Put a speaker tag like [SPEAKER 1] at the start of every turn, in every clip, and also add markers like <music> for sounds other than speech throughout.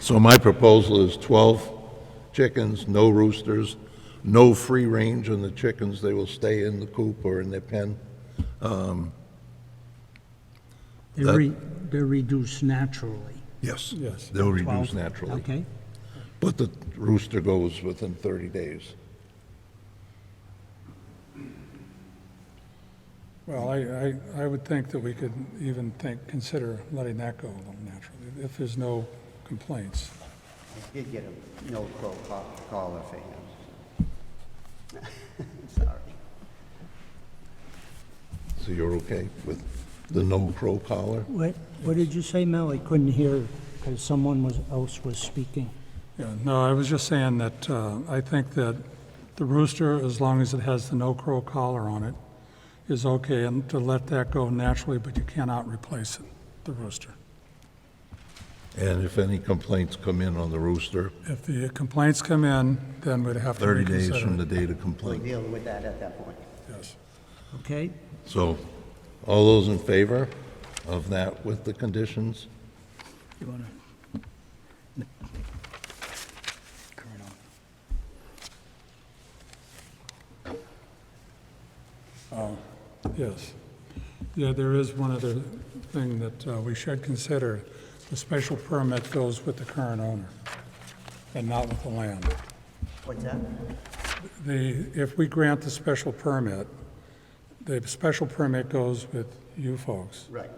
[SPEAKER 1] So my proposal is 12 chickens, no roosters, no free range on the chickens. They will stay in the coop or in their pen.
[SPEAKER 2] They're re- they're reduced naturally,
[SPEAKER 1] Yes.
[SPEAKER 3] Yes.
[SPEAKER 1] They'll reduce naturally.
[SPEAKER 2] okay?
[SPEAKER 1] But the rooster goes within 30 days.
[SPEAKER 3] Well, I, I, I would think that we could even think, consider letting that go along naturally, if there's no complaints.
[SPEAKER 4] Did get a no crow co- collar for him. <laughs> Sorry.
[SPEAKER 1] So you're okay with the no crow collar?
[SPEAKER 2] What, what did you say, Mel? I couldn't hear because someone was, else was speaking.
[SPEAKER 3] Yeah, no, I was just saying that, uh, I think that the rooster, as long as it has the no-crow collar on it, is okay, and to let that go naturally, but you cannot replace it, the rooster.
[SPEAKER 1] And if any complaints come in on the rooster,
[SPEAKER 3] If the complaints come in, then we'd have to
[SPEAKER 1] 30 days
[SPEAKER 3] reconsider.
[SPEAKER 1] from the date of
[SPEAKER 4] We'll
[SPEAKER 1] complaint.
[SPEAKER 4] deal with that at that point.
[SPEAKER 3] Yes.
[SPEAKER 2] Okay,
[SPEAKER 1] So all those in favor of that with the conditions?
[SPEAKER 2] you wanna?
[SPEAKER 3] Um, Yes. Yeah, there is one other thing that uh, we should consider. The special permit goes with the current owner and not with the land.
[SPEAKER 4] What's that?
[SPEAKER 3] The, if we grant the special permit, the special permit goes with you folks,
[SPEAKER 4] Right.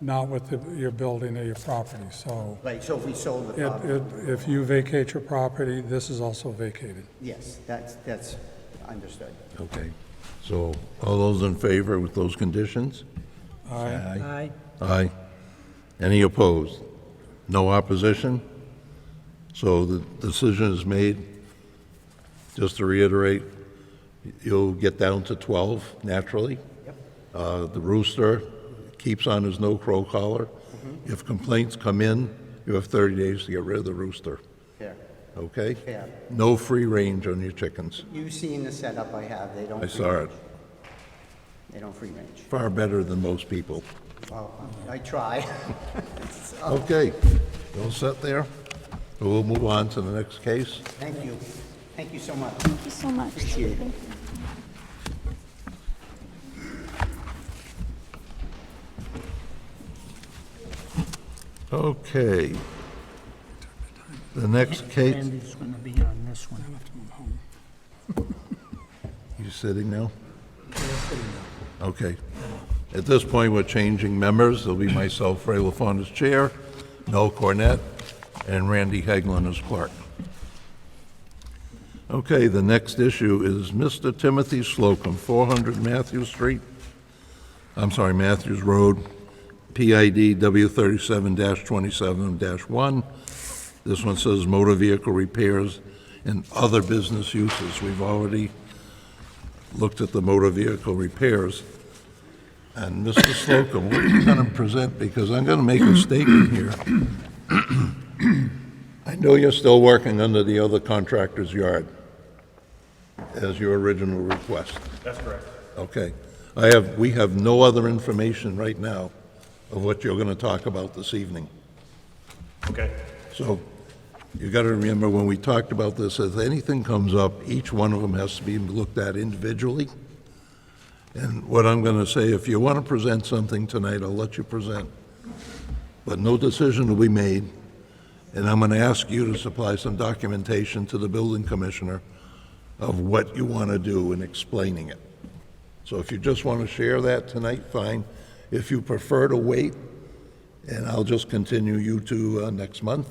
[SPEAKER 3] not with the- your building or your property. So
[SPEAKER 4] Right, so if we sold the
[SPEAKER 3] it-
[SPEAKER 4] property,
[SPEAKER 3] it- if you vacate your property, this is also vacated.
[SPEAKER 4] yes, that's, that's understood.
[SPEAKER 1] Okay. So all those in favor with those conditions?
[SPEAKER 3] Aye.
[SPEAKER 2] Aye.
[SPEAKER 1] Aye. Any opposed? No opposition? So the decision is made. Just to reiterate, you'll get down to 12 naturally. Uh, The rooster keeps on his no-crow collar. If complaints come in, you have 30 days to get rid of the rooster,
[SPEAKER 4] Here.
[SPEAKER 1] okay?
[SPEAKER 4] Yeah.
[SPEAKER 1] No free range on your chickens.
[SPEAKER 4] You've seen the setup I have, they don't.
[SPEAKER 1] I
[SPEAKER 4] free
[SPEAKER 1] saw it.
[SPEAKER 4] range. They don't free range.
[SPEAKER 1] Far better than most people.
[SPEAKER 4] Well, I try.
[SPEAKER 1] Okay, you all set there? We'll move on to the next case.
[SPEAKER 4] <laughs> Thank you. Thank you so much.
[SPEAKER 5] Thank you so much.
[SPEAKER 4] Appreciate it.
[SPEAKER 5] Thank you.
[SPEAKER 1] Okay. The next case,
[SPEAKER 2] Andy's gonna be on this one.
[SPEAKER 1] you sitting now? Okay. At this point, we're changing members. There'll be myself, Ray LaFond as chair, Noel Cornett, and Randy Haglund as clerk. Okay, the next issue is Mr. Timothy Slocum, 400 Matthews Street, I'm sorry, Matthews Road, PID W37-27-1. This one says motor vehicle repairs and other business uses. We've already looked at the motor vehicle repairs. And Mr. Slocum, what are you going to present? Because I'm going to make a statement here. <clears throat> I know you're still working under the other contractor's yard as your original request.
[SPEAKER 6] That's correct.
[SPEAKER 1] Okay. I have, we have no other information right now of what you're going to talk about this evening.
[SPEAKER 6] Okay.
[SPEAKER 1] So you got to remember, when we talked about this, if anything comes up, each one of them has to be looked at individually. And what I'm going to say, if you want to present something tonight, I'll let you present. But no decision will be made, and I'm going to ask you to supply some documentation to the building commissioner of what you want to do and explaining it. So if you just want to share that tonight, fine. If you prefer to wait, and I'll just continue you to uh, next month.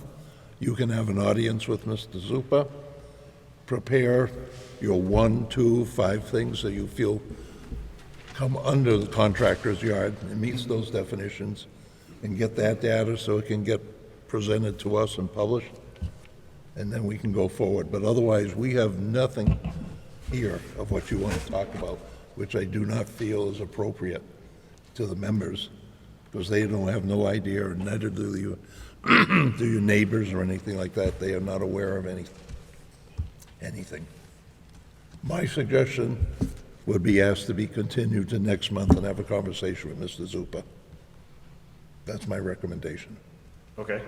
[SPEAKER 1] You can have an audience with Mr. Zupa. Prepare your one, two, five things that you feel come under the contractor's yard and meets those definitions, and get that data so it can get presented to us and published, and then we can go forward. But otherwise, we have nothing here of what you want to talk about, which I do not feel is appropriate to the members, because they don't have no idea, and neither do you, <clears throat> do your neighbors or anything like that. They are not aware of any, anything. My suggestion would be asked to be continued to next month and have a conversation with Mr. Zupa. That's my recommendation.
[SPEAKER 6] Okay.